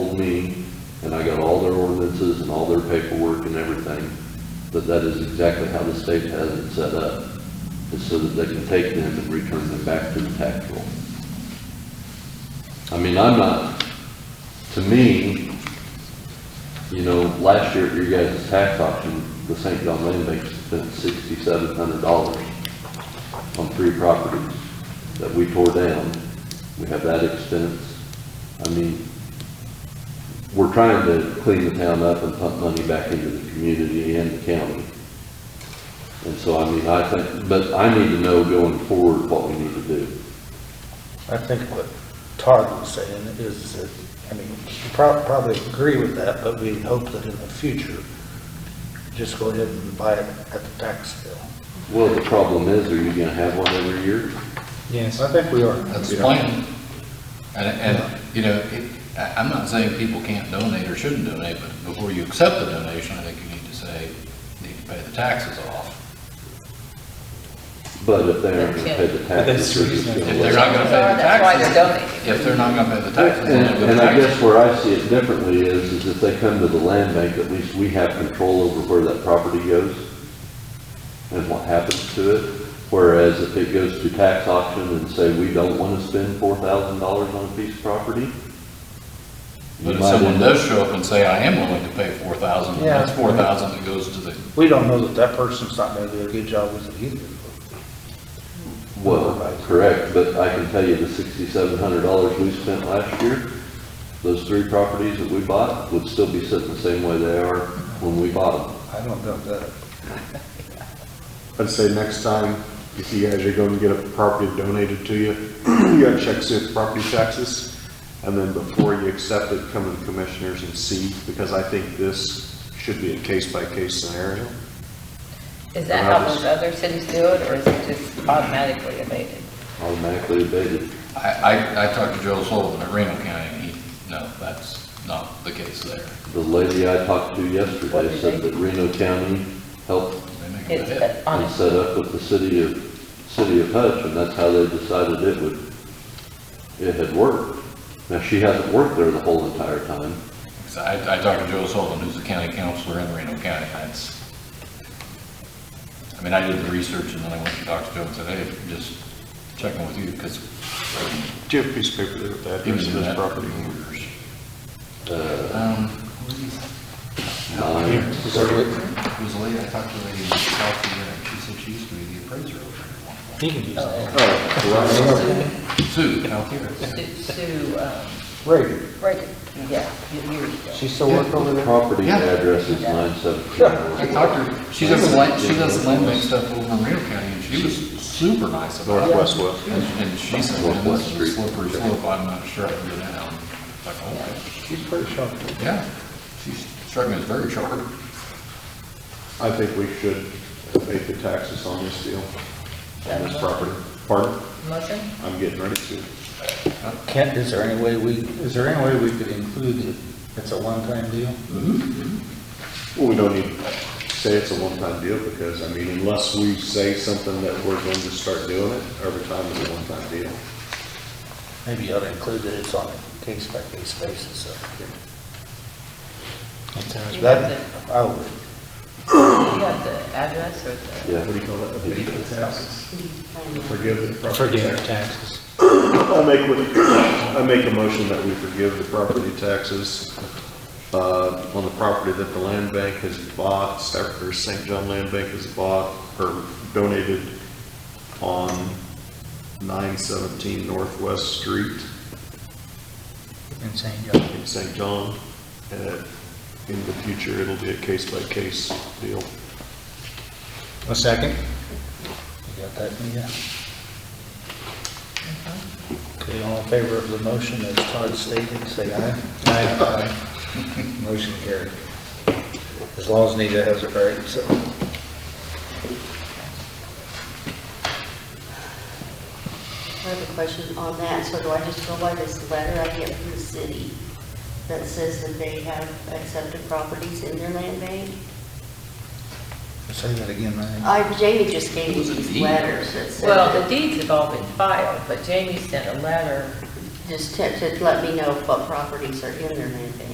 told me, and I got all their ordinances and all their paperwork and everything, that that is exactly how the state has it set up, is so that they can take them and return them back to the tax roll. I mean, I'm not, to me, you know, last year at your guys' tax auction, the St. John Land Bank spent sixty-seven hundred dollars on three properties that we tore down. We have that expense. I mean, we're trying to clean the town up and pump money back into the community and the county. And so, I mean, I think, but I need to know going forward what we need to do. I think what Todd was saying is that, I mean, you prob- probably agree with that, but we hope that in the future, just go ahead and buy it at the tax sale. Well, the problem is, are you gonna have one every year? Yes. I think we are. That's the plan. And, and, you know, it, I, I'm not saying people can't donate or shouldn't donate, but before you accept the donation, I think you need to say, need to pay the taxes off. But if they aren't gonna pay the But that's taxes, they're just reasonable. gonna let If they're not gonna pay the That's why they're taxes, donating. if they're not gonna pay the taxes, then they'll And go to and I guess taxes. where I see it differently is, is if they come to the land bank, at least we have control over where that property goes and what happens to it. Whereas if it goes to tax auction and say, we don't want to spend four thousand dollars on a piece of property. you But if might someone end up- does show up and say, I am willing to pay four thousand, Yeah. that's four thousand that goes to the, We don't know that that person's not gonna do a good job with it either. Well, correct, but I can tell you the sixty-seven hundred dollars we spent last year, those three properties that we bought would still be sitting the same way they are when we bought them. I don't know that. I'd say next time, if you guys are going to get a property donated to you, you gotta check see if property taxes. And then before you accept it, come to the commissioners and see, because I think this should be a case-by-case scenario. Is that how those other cities do it, or is it just automatically abated? Automatically abated. I, I, I talked to Joel Sullivan at Reno County, and he, no, that's not the case there. The lady I talked to yesterday said that Reno County helped They make it a hit. It's on and set up with the city of, city of Hutch, and that's how they decided it would, it had worked. Now, she hasn't worked there the whole entire time. So I, I talked to Joe Sullivan, who's the county counselor in Reno County, that's, I mean, I did the research and then I went to Dr. Joe and said, hey, just checking with you, because Do you have a piece of paper there with the he address was of in this that property? property. Uh, Um, nine- it was late, I talked to a lady in South Korea, and she said she used to be the appraiser over there. He can use that. uh, Sue, out here. Sue, um, Right, right, yeah, years ago. she still work over The there? property Yeah. address is nine I seventeen. talked to her, she does the land, she does the land bank stuff over in Reno County, and she was super nice about it. Northwest West. And and she said, man, this is a slippery slope, I'm not sure I can go down. It's Like, oh, She's pretty sharp. yeah, she struck me as very sharp. I think we should abate the taxes on this deal, on this property. Pardon? Motion? I'm getting ready to. Kent, is there any way we, is there any way we could include it? It's a one-time deal? Well, we don't need to say it's a one-time deal, because, I mean, unless we say something that we're going to start doing it, every time it's a one-time deal. Maybe you ought to include that it's on a case-by-case basis, so. That's You have That, the, I would, you have the address or the? Yeah. What do you call it? Abate the taxes? Forgive the right. property Forgive tax. taxes. I make, what- I make a motion that we forgive the property taxes uh, on the property that the land bank has bought, or St. John Land Bank has bought or donated on 917 Northwest Street and saying, yeah, in St. John. Uh, In the future, it'll be a case-by-case deal. a second? You got that, Mia? Okay, all in favor of the motion as Todd stated, say aye. Aye. Motion carried. As long as Nita has it right, so. I have a question on that, so do I just go by this letter I get from the city that says that they have accepted properties in their land bank? Say that again, man. I, Jamie just gave me Was it these deed? letters that said. Well, the deeds have all been filed, but Jamie sent a letter just to, to let me know what properties are in their land bank.